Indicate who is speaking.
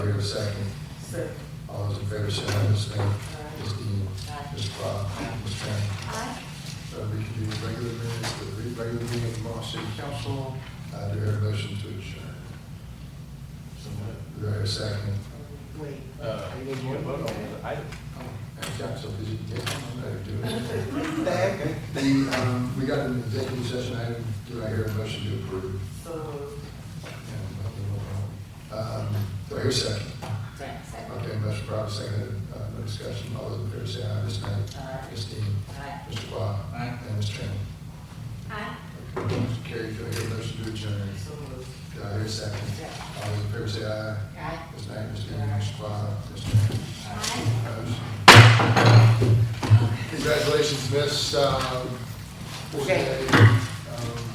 Speaker 1: Here a second.
Speaker 2: Sir.
Speaker 1: All those in favor, say aye, Ms. Smith.
Speaker 2: uh,
Speaker 1: Ms. Dean.
Speaker 2: Aye.
Speaker 1: Ms. Pye. Ms. Tran. Uh, we can do regular minutes, the re- regular meeting of the Moss City Council. Uh, do I hear a motion to adjourn? Do I hear a second?
Speaker 2: Wait.
Speaker 3: Uh,
Speaker 2: Are you
Speaker 3: you
Speaker 2: gonna
Speaker 3: can vote on
Speaker 2: vote?
Speaker 3: the item.
Speaker 1: I've got so busy today, I don't know how to do it. The, um, we got an executive session item, do I hear a motion to approve?
Speaker 2: So,
Speaker 1: And, Um, do I hear a second?
Speaker 2: thanks.
Speaker 1: Okay, motion probably seconded, uh, no discussion, all those in favor, say aye, Ms. Smith.
Speaker 2: Aye.
Speaker 1: Ms. Dean.
Speaker 2: Aye.
Speaker 1: Mr. Pye. And Ms. Tran.
Speaker 2: Aye.
Speaker 1: Motion carried, do I hear a motion to adjourn?
Speaker 2: So moved.
Speaker 1: Do I hear a second? All those in favor say aye.
Speaker 2: Aye.
Speaker 1: Ms. Knight, Ms. Dean, Mr. Bott, Ms. Tran. Motion. Congratulations, Miss, um,
Speaker 2: Okay.
Speaker 1: Forte.